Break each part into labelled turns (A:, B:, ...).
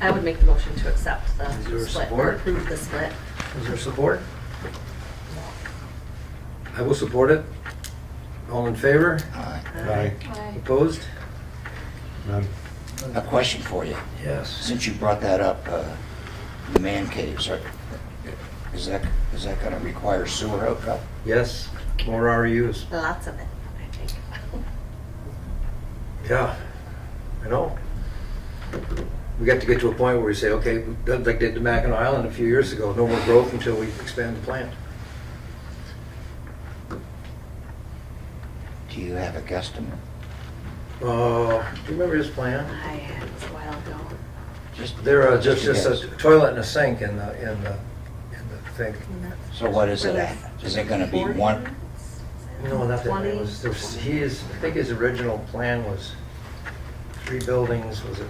A: I would make the motion to accept
B: Is there
A: the split or
B: support?
A: approve the split.
B: Is there support? I will support it. All in favor?
C: Uh,
A: uh,
D: Aye.
B: Opposed?
D: None.
C: A question for you.
B: Yes.
C: Since you brought that up, uh, the man caves, are- is that, is that going to require sewer hookup?
B: Yes, more E RUs.
A: Lots of it, I think.
B: Yeah, I know. We got to get to a point where we say, okay, like they did to Mackinac Island a few years ago, no more growth until we expand the plant.
C: Do you have a guesstimate?
B: Uh, do you remember his plan?
A: I had it was a while ago.
C: Just
B: There are just,
C: a
B: just a
C: guess.
B: toilet and a sink in the, in the, in the thing.
A: And that's
C: So what is it
A: really
C: at? Is it gonna be
A: 40
C: one-
A: minutes?
B: No, not that, many. it was, there
A: 20?
B: was, he is, I think his original plan was three buildings, was it?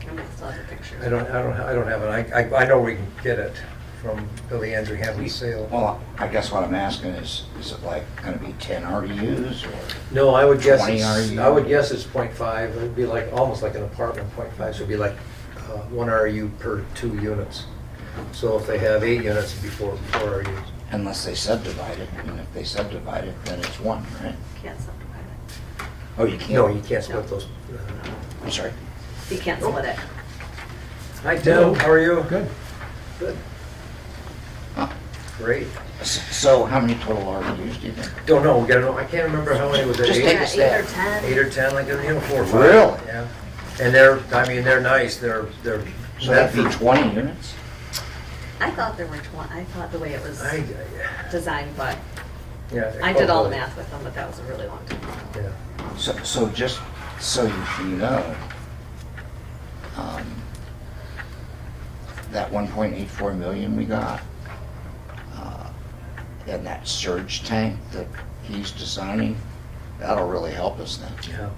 A: I might still have a picture.
B: I don't, I don't, I don't have it, I, I- I know we can get it from Billy Andrew Hammond's sale.
C: Well, I guess what I'm asking is, is it like going to be 10 RDUs or?
B: No, I would guess,
C: 20
B: it's-
C: RU.
B: I would guess it's .5, five, it'd be like, almost like an apartment, .5, so it'd be like, uh, one RU per two units. So if they have eight units, it'd be four, four RUs.
C: Unless they subdivide it, and if they subdivide it, then it's one, right?
A: Can't subdivide it.
C: Oh, you can't?
B: No, you can't split those. uh,
C: I'm sorry.
A: You can't split it.
B: Hi, Tim, how are you?
D: Good.
B: Good.
C: Huh.
B: Great.
C: S- So how many total RDUs do you think?
B: Don't know, Oh, we gotta know, I can't remember how many was it,
C: Just
B: eight?
C: take a
A: Yeah, Eight or
C: stab.
A: 10.
B: eight or 10, like, you know, four or five.
C: Really?
B: Yeah. And they're, I mean, they're nice, they're, they're.
C: So that'd be 20 units?
A: I thought there were 20, I thought the way it was
B: I,
A: designed, but
B: yeah.
A: I did all the math with them, but that was a really long time ago.
B: Yeah.
C: So, so just so you you know, um, that 1.84 million we got, uh, and that surge tank that he's designing, that'll really help us then.
B: Yeah.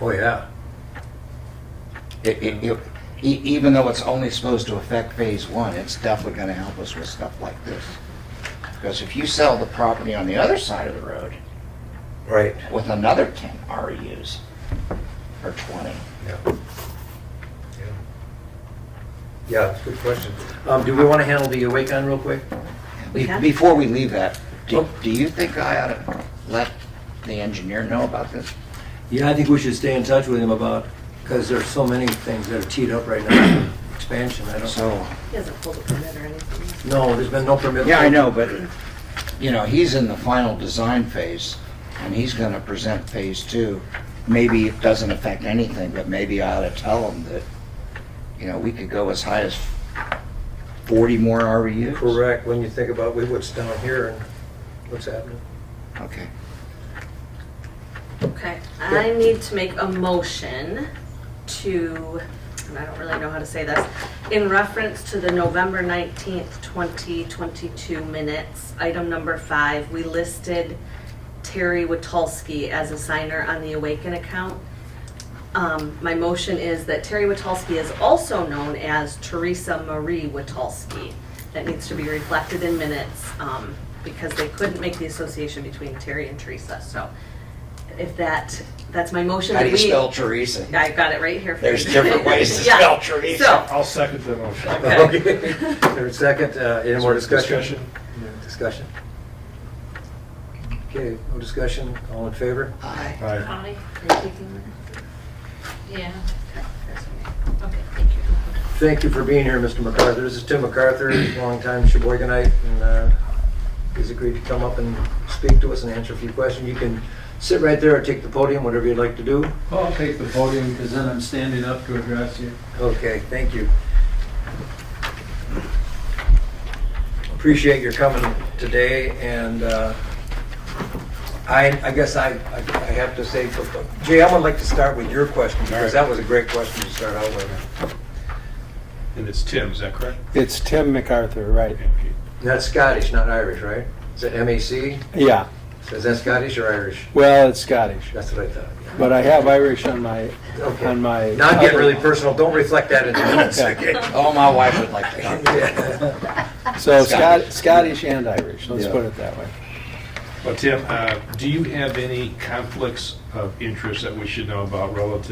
B: Oh, yeah.
C: It, it, it- e- even though it's only supposed to affect phase one, it's definitely gonna help us with stuff like this. Because if you sell the property on the other side of the road
B: Right.
C: with another E 10 REUs, or 20,
B: Yeah. Yeah. Yeah, it's a good question. Um, do we wanna handle the Awakon real quick?
C: Be-
A: Okay.
C: Before we leave that, do
B: Oh.
C: do you think I ought to let the engineer know about this?
B: Yeah, I think we should stay in touch with him about, because there's so many things that are teed up right now, expansion, I don't.
C: So,
A: He hasn't pulled a permit or anything.
B: No, there's been no permit.
C: yeah, I know, but, you know, he's in the final design phase, and he's gonna present phase two. Maybe it doesn't affect anything, but maybe I ought to tell him that, you know, we could go as high as 40 more E REUs?
B: Correct, when you think about what's down here and what's happening.
C: Okay.
A: Okay, I need to make a motion to, and I don't really know how to say this, in reference to the November 19th, 2022 minutes, item number five, we listed Terry Witalski as a signer on the Awaken account. Um, My motion is that Terry Witalski is also known as Teresa Marie Witalski. That needs to be reflected in minutes um, because they couldn't make the association between Terry and Teresa. So if that, that's my motion.
C: How do
A: that
C: you
A: we- uh,
C: spell Teresa?
A: I got it right here. for
C: There's
A: you.
C: different ways to
A: Yeah.
C: spell Teresa.
A: So,
D: I'll second the motion.
A: Okay.
B: Third second, uh, any more discussion? Discussion. Okay, no discussion, all in favor?
C: Aye.
D: Aye.
E: Yeah. Okay, thank you.
B: Thank you for being here, Mr. MacArthur. This is Tim MacArthur, longtime Sheboyganite, and uh, he's agreed to come up and speak to us and answer a few questions. You can sit right there or take the podium, whatever you'd like to do.
F: Well, I'll take the podium because then I'm standing up to address you.
B: Okay, thank you. Appreciate your coming today, and uh, I, I guess I, I I have to say, Jay, I would like to start with your question, because that was a great question to start out with.
G: And it's Tim, is that correct?
D: It's Tim MacArthur, right?
B: That's Scottish, not Irish, right? Is it MAC?
D: Yeah,
B: Is that Scottish or Irish?
D: well, it's Scottish,
B: That's what I thought.
D: but I have Irish on my,
B: Okay.
D: on my.
B: Not get really personal, don't reflect that in minutes,
D: Okay.
B: okay?
C: Oh, my wife would like to. know.
B: Yeah.
D: So
C: Scottish.
D: Scot- Scottish and Irish, let's
B: Yeah.
D: put it that way.
G: Well, Tim, uh, do you have any conflicts of interest that we should know about relative